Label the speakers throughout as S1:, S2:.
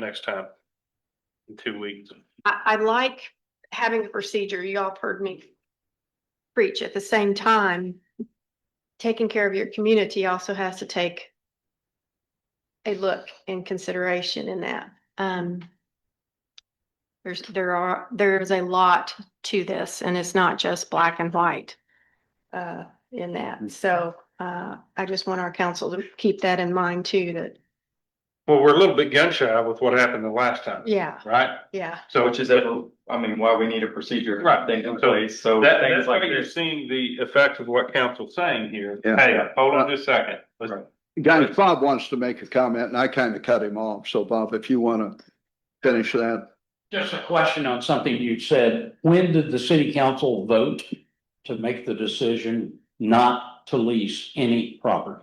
S1: next time. In two weeks.
S2: I, I like having a procedure. Y'all have heard me preach at the same time. Taking care of your community also has to take a look and consideration in that. Um, there's, there are, there is a lot to this and it's not just black and white uh, in that. So, uh, I just want our council to keep that in mind too, that,
S1: Well, we're a little bit gun shy with what happened the last time,
S2: yeah,
S1: right?
S2: yeah.
S1: So
S3: Which is, I mean, why we need a procedure.
S1: Right.
S3: Thing in
S1: So
S3: place, so
S1: that,
S3: things
S1: that's why
S3: like
S1: you're
S3: this.
S1: seeing the effect of what council's saying here.
S4: Yeah.
S1: Hey, hold on just a second. Let's-
S3: Right.
S4: Guys, Bob wants to make a comment and I kind of cut him off. So Bob, if you want to finish that.
S5: Just a question on something you said. When did the city council vote to make the decision not to lease any property?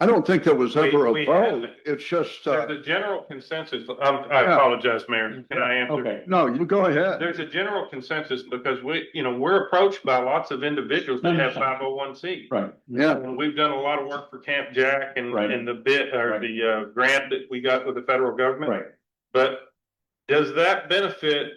S4: I don't think there was
S1: We-
S4: ever
S1: we
S4: a vote.
S1: haven't.
S4: It's just, uh,
S1: There's a general consensus, um, I apologize, Mayor, can I answer?
S5: Okay,
S4: no, you go ahead.
S1: There's a general consensus because we, you know, we're approached by lots of individuals that have five oh one C.
S5: right.
S4: Yeah,
S1: And We've done a lot of work for Camp Jack and,
S5: Right.
S1: and the bit, or
S5: Right.
S1: the, uh, grant that we got with the federal government.
S5: Right.
S1: But does that benefit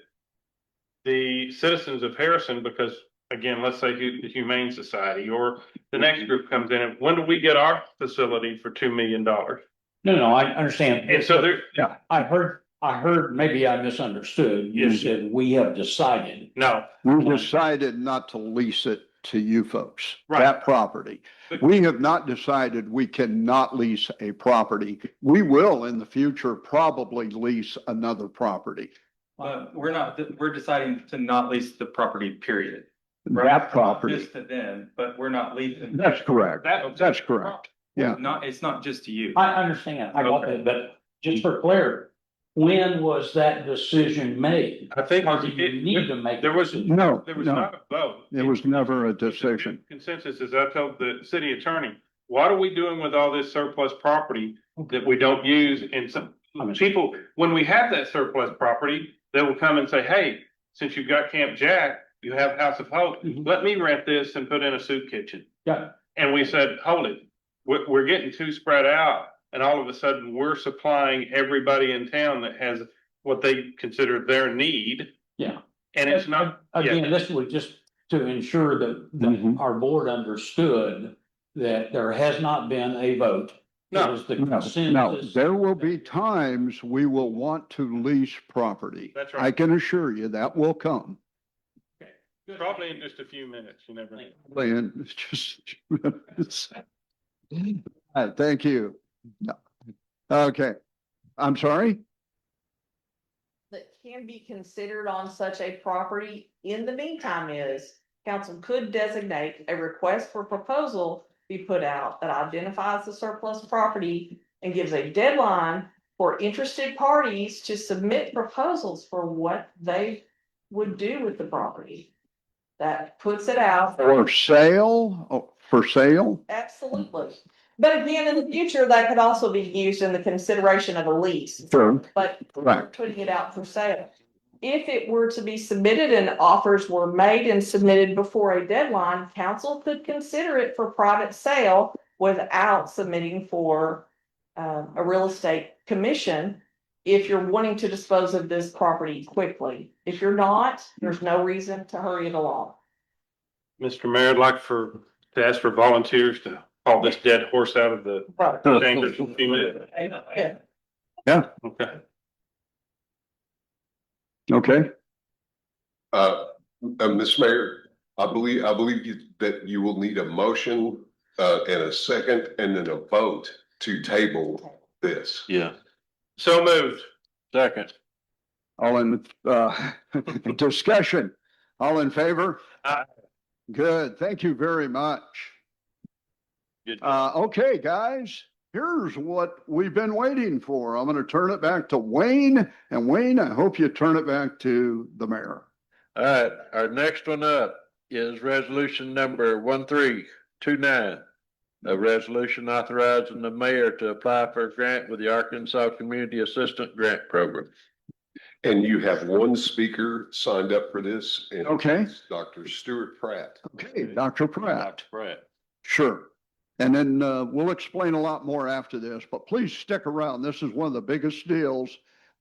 S1: the citizens of Harrison? Because again, let's say hu- the Humane Society or the next
S4: Mm-hmm.
S1: group comes in, and when do we get our facility for two million dollars?
S5: No, no, I understand.
S1: And so there,
S5: I heard, I heard, maybe I misunderstood. You
S1: Yes.
S5: said we have decided.
S1: no,
S4: we decided not to lease it to you folks,
S1: Right.
S4: that property.
S1: But-
S4: We have not decided we cannot lease a property. We will in the future probably lease another property.
S3: But we're not, we're deciding to not lease the property, period.
S4: That property.
S3: Just to them, but we're not leasing.
S4: That's correct.
S1: that.
S4: That's correct. yeah.
S3: Not, it's not just to you.
S5: I understand. I got that, but just for clarity, when was that decision made?
S1: I think
S5: Or do you need
S1: it-
S5: to make?
S1: there was-
S5: it?
S4: No,
S1: there was
S4: no,
S1: not a vote.
S4: it was never a
S1: It's a
S4: decision.
S1: Consensus is I told the city attorney, what are we doing with all this surplus property that we don't use? And some
S5: I mean-
S1: people, when we have that surplus property, they will come and say, hey, since you've got Camp Jack, you have House of Hope,
S5: Mhm.
S1: let me rent this and put in a soup kitchen.
S5: Yeah.
S1: And we said, hold it, we're, we're getting too spread out. And all of a sudden, we're supplying everybody in town that has what they consider their need.
S5: Yeah.
S1: And it's not, yeah.
S5: Again, this was just to ensure that, that
S4: Mhm.
S5: our board understood that there has not been a vote.
S1: No,
S5: It was the
S4: No, no,
S5: consensus.
S4: there will be times we will want to lease property.
S1: That's right.
S4: I can assure you that will come.
S1: probably in just a few minutes, you never know.
S4: And it's just. it's- All right, Thank you. No. Okay, I'm sorry?
S6: that can be considered on such a property in the meantime is. Council could designate a request for proposal be put out that identifies the surplus property. And gives a deadline for interested parties to submit proposals for what they would do with the property. That puts it out,
S4: For sale, Oh, for sale?
S6: absolutely. But again, in the future, that could also be used in the consideration of a lease.
S4: Sure.
S6: But we're
S4: Correct.
S6: putting it out for sale. If it were to be submitted and offers were made and submitted before a deadline, council could consider it for private sale without submitting for um, a real estate commission if you're wanting to dispose of this property quickly. If you're not, there's no reason to hurry it along.
S1: Mr. Mayor, I'd like for, to ask for volunteers to haul this dead horse out of the
S6: Right.
S1: chamber for a few minutes.
S6: Yeah.
S1: Okay.
S4: Okay,
S7: Uh, uh, Ms. Mayor, I believe, I believe you, that you will need a motion, uh, and a second and then a vote to table this.
S1: Yeah. So moved. Second.
S4: all in, uh, discussion, all in favor?
S1: Aye.
S4: Good, thank you very much. Uh, okay, guys, here's what we've been waiting for. I'm gonna turn it back to Wayne, and Wayne, I hope you turn it back to the mayor.
S8: All right, our next one up is resolution number one, three, two, nine. A resolution authorizing the mayor to apply for a grant with the Arkansas Community Assistant Grant Program.
S7: And you have one speaker signed up for this. and
S4: Okay.
S7: it's Dr. Stuart Pratt.
S4: Okay, Dr. Pratt,
S8: Right.
S4: sure. And then, uh, we'll explain a lot more after this, but please stick around. This is one of the biggest deals